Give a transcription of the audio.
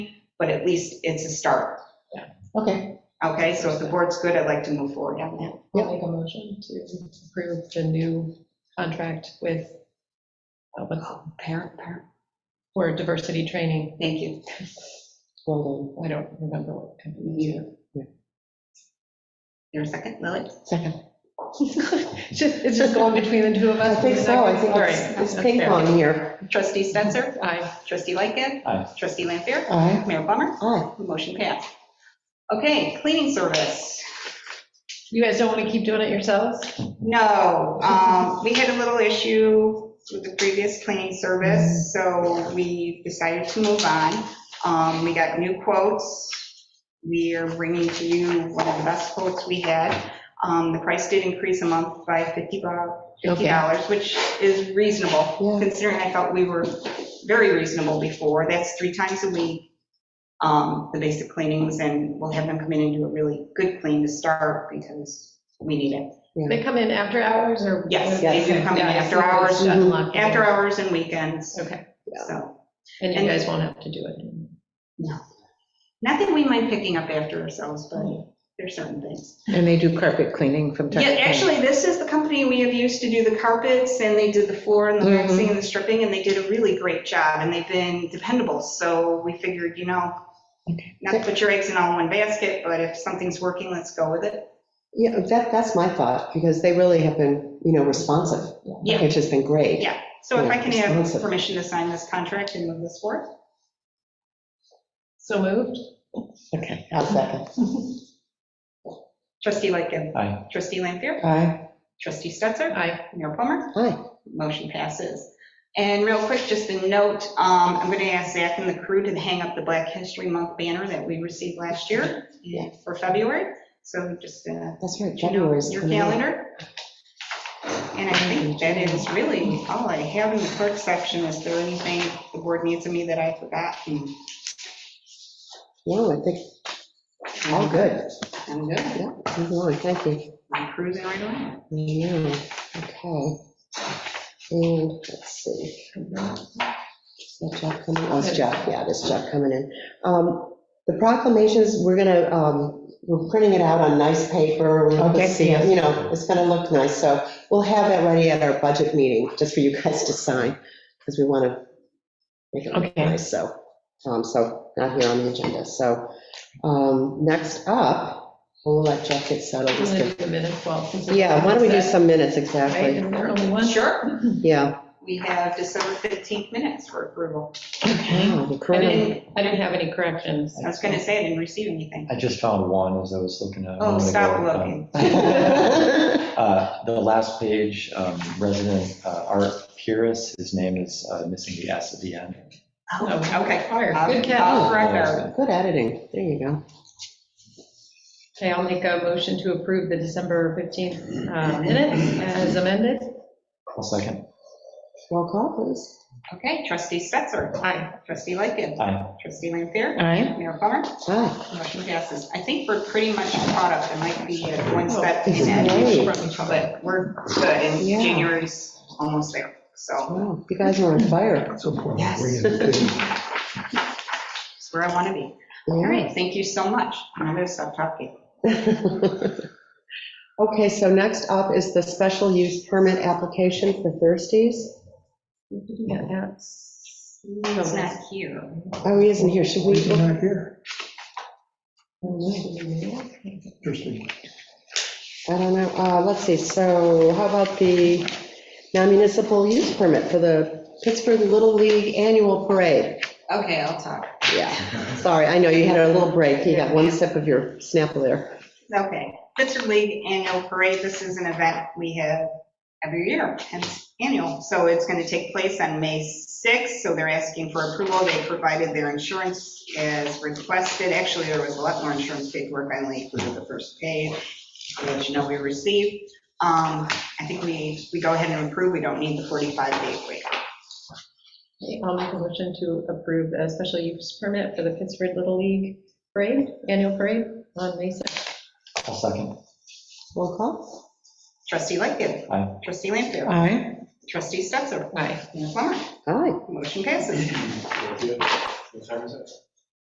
but at least it's a start. Okay, Okay, so if the board's good, I'd like to move forward on that. I'll make a motion to approve the new contract with, uh, what's it, parent, parent, for diversity training. Thank you. Golden, I don't remember what company You. There a second, Lily? second. it's just, it's just going between the two of I us. think so, I think All it's- right, it's that's ping fair. pong here. Trustee Spencer? Aye. Trustee Lightgev? Aye. Trustee Lampier? Aye, Mayor Plummer? aye. Motion passed. Okay, cleaning service. You guys don't want to keep doing it yourselves? No, um, we had a little issue with the previous cleaning service, so we decided to move on. Um, We got new quotes. We are bringing to you one of the best quotes we had. Um, The price did increase a month by 50 bu- $50, which is reasonable, Yeah. considering I thought we were very reasonable before. That's three times a week, um, the basic cleanings, and we'll have them come in and do a really good clean to start because we need it. They come in after hours or? Yes, they do come in Yeah, after it's hours. just Mm-hmm. unlocked. After hours and weekends, Okay, so. and you And- guys won't have to do it. anymore. Not that we mind picking up after ourselves, but there's certain things. And they do carpet cleaning from time Yeah, to time. actually, this is the company we have used to do the carpets, and they did the floor and the Mhm. waxing and the stripping, and they did a really great job, and they've been dependable, so we figured, you know, Okay. not to put your eggs in all one basket, but if something's working, let's go with it. Yeah, that, that's my thought, because they really have been, you know, responsive, Yeah. which has been great. Yeah. So if I Yeah, can have responsive. permission to sign this contract and move this forward? So moved? Okay, I'll second. Trustee Lightgev. Aye. Trustee Lampier. Aye, Trustee Stetser. Aye. Mayor Plummer. aye. Motion passes. And real quick, just a note, um, I'm going to ask Zach and the crew to hang up the Black History Month banner that we received last year Yeah. for February. So just, uh, That's right, you know, January is your coming up. calendar. And I think that is really all I have in the clerk section. Is there anything the board needs of me that I forgot? No, I think, all good. I'm good. Yeah, move along, thank you. I'm cruising right along. Yeah, okay. And let's see. Is that Jeff coming? Oh, it's Jeff, yeah, this Jeff coming in. Um, The proclamations, we're gonna, um, we're printing it out on nice paper. We're gonna Okay. see it, You know, it's gonna look nice, so we'll have that ready at our budget meeting, just for you guys to sign, because we want to make it look Okay. nice, so, um, so not here on the agenda, so. um, Next up, we'll let Jeff get settled. I'm gonna do the minutes while- since it's- Yeah, why don't we do some minutes, Right, exactly? and there are only one. Sure. Yeah. We have December 15th minutes for approval. Wow, the I corona- didn't, I didn't have any corrections. I was going to say I didn't receive anything. I just found one as I was looking at. a Oh, moment stop ago. looking. Um, uh, The last page, um, resident uh, Art Pierce, his name is uh, missing the S at the end. Oh, Okay. Fire, Uh, I'll- good I'll catch. correct our- Good editing, there you go. Okay, I'll make a motion to approve the December 15th uh, minutes as amended. I'll second. Roll call, please. Okay, trustee Stetser, Aye. trustee Lightgev, Aye. trustee Lampier, Aye. Mayor Plummer, Aye. motion passes. I think we're pretty much caught up, it might be at one step, It's in, great. but we're good, and Yeah. January's almost there, so Wow, you guys are on fire. That's what Yes. it's where I want to be. All right, thank you so much, I'm going to stop talking. Okay, so next up is the special use permit application for Thirsties. Yeah, that's- It's not here. Oh, he isn't here, should He's we? not here, Okay, interesting. I don't know, Uh, let's see, so how about the non-municipal use permit for the Pittsburgh Little League Annual Parade? Okay, I'll talk. Yeah, sorry, I know you had a little break, you got one sip of your Snapple there. Okay, Pittsburgh League Annual Parade, this is an event we have every year, and it's annual. So it's going to take place on May 6th, so they're asking for approval. They provided their insurance as requested. Actually, there was a lot more insurance paperwork I only included the first page, which you know we received. Um, I think we, we go ahead and approve, we don't need the 45-day wait. I'll make a motion to approve a special use permit for the Pittsburgh Little League parade, annual parade on May 6th. I'll second. Roll call. Trustee Lightgev. Aye. Trustee Lampier. Aye. Trustee Stetser. Aye. Mayor Plummer. Aye. Motion passes. What time is it?